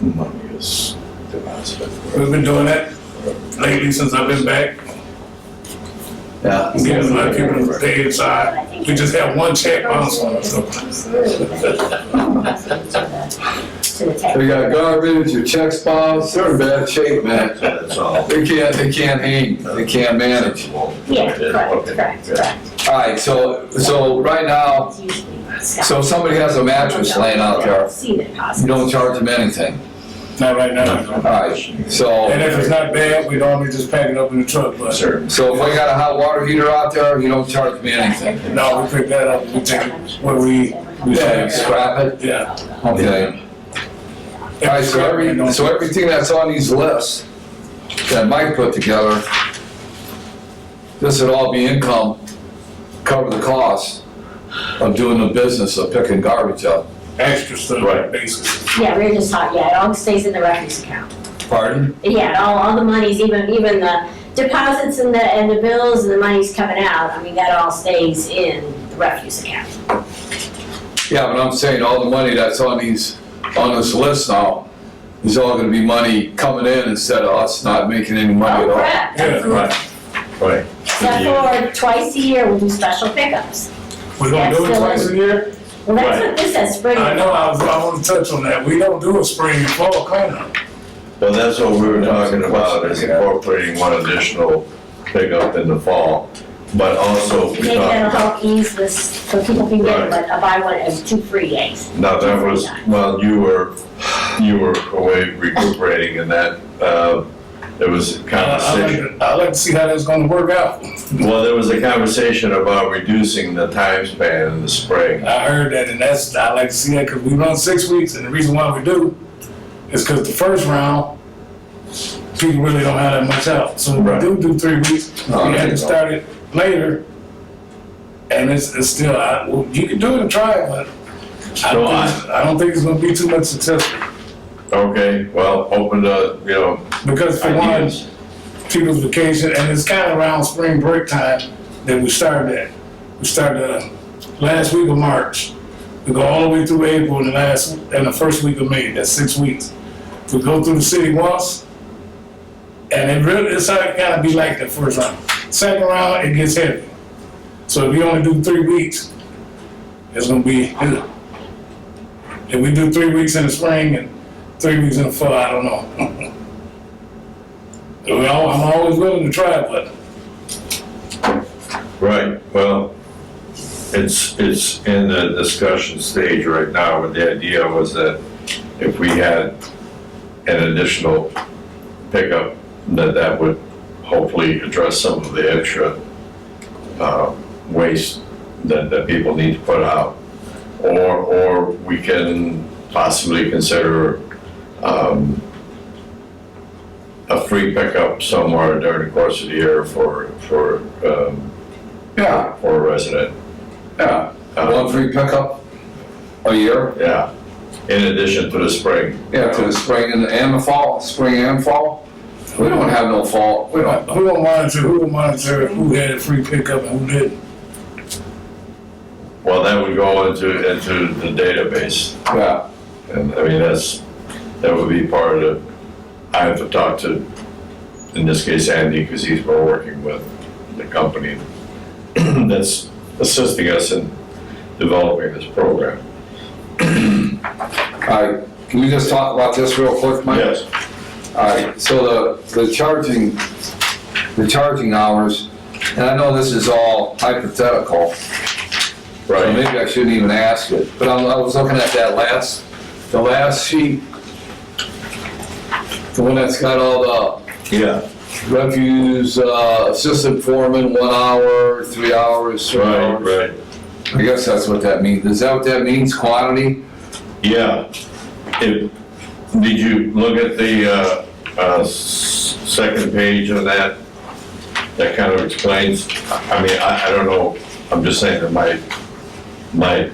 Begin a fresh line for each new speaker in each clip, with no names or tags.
money is deposited.
We've been doing that lately since I've been back,
Yeah.
getting a lot of people to pay inside. We just have one check bounce on us. so.
They got garbage, your checks bounced, they're in bad shape, man.
That's all.
They can't, they can't hang, they can't manage.
Yeah, correct, correct, correct.
All right, so, so right now,
It's usually not
so if somebody has a mattress laying out there,
See that
you
possible.
don't charge them anything.
Not right now.
All right,
And
so,
if it's not bad, we normally just pack it up in the truck, but.
Sir,
so if I got a hot water heater out there, you don't charge me anything.
No, we pick that up, we take it where we,
You
Yeah.
just scrap it?
yeah.
Okay. All right, so every, so everything that's on these lists that Mike put together, this would all be income, cover the cost of doing the business of picking garbage up.
Extra stuff,
Right.
basically.
Yeah, we're just talking, yeah, it all stays in the records account.
Pardon?
Yeah, all, all the monies, even, even the deposits and the, and the bills and the money's coming out, I mean, that all stays in the refuse account.
Yeah, but I'm saying all the money that's on these, on this list now, is all gonna be money coming in instead of us not making any money
Oh,
at
correct.
Yeah, right.
right.
Except for twice a year, we do special pickups.
We don't do it twice a year?
Well, that's what this says, spring.
I know, I, was- I wanna touch on that. We don't do a spring and fall cleanup.
Well, that's what we were talking about, is incorporating one additional pickup in the fall, but also we
Maybe that'll
talked,
help ease this, so people can get
Right.
like a buy one and two free days.
now that was, well, you were, you were away recuperating and that, uh, there was a
Uh, I'd
conversation.
like to- I'd like to see how that's gonna work out.
Well, there was a conversation about reducing the time span in the spring.
I heard that, and that's, I like to see that, because we run six weeks, and the reason why we do is because the first round, people really don't have that much out. So we
Right.
do do three weeks, we
No,
had
no.
to start it later, and it's, it's still, I, well, you can do it and try it, but I
No,
don't, think- I don't think it's gonna be too much successful.
Okay, well, open the, you know,
Because for one,
ideas.
people's vacation, and it's kind of around spring break time that we started that. We started uh, last week of March. We go all the way through April and the last and the first week of May. That's six weeks. We go through the city once, and it really it's like, gotta be like that first round. Second round, it gets heavy. So if you only do three weeks, it's gonna be. If we do three weeks in the spring and three weeks in the fall, I don't know. Well, I'm always willing to try, but
Right, well, it's, it's in the discussion stage right now, but the idea was that if we had an additional pickup, that that would hopefully address some of the extra, uh, waste that, that people need to put out. Or, or we can possibly consider, um, a free pickup somewhere during the course of the year for, for, um,
Yeah,
for a resident.
yeah. One
Uh,
free pickup a year,
Yeah, in addition to the spring.
yeah, to the spring and, and the fall, spring and fall. We don't have no fall, we
who
don't,
will monitor, who will monitor who had a free pickup and who didn't?
Well, that would go into, into the database,
yeah.
and I mean, that's, that would be part of, the- I have to talk to, in this case, Andy, because he's been working with the company that's assisting us in developing this program.
All right, can we just talk about this real quick, Mike?
Yes,
All right, so the, the charging, the charging hours, and I know this is all hypothetical, so
right,
maybe I shouldn't even ask it, but I, I was looking at that last, the last sheet, the one that's got all
yeah,
the refuse, uh, assistant foreman, one hour, three hours, three
right,
hours.
right,
I guess that's what that means. Is that what that means, quantity?
yeah. If, did you look at the, uh, uh, s- second page of that? That kind of explains, I mean, I, I don't know, I'm just saying that my, my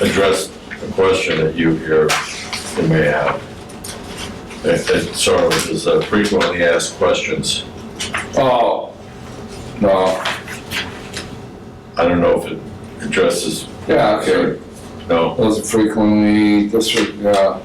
address, the question that you, you're, you may have. It, it sort of is a frequently asked questions.
Oh, no,
I don't know if it addresses,
yeah, okay.
no,
Those are frequently, uh, this, yeah.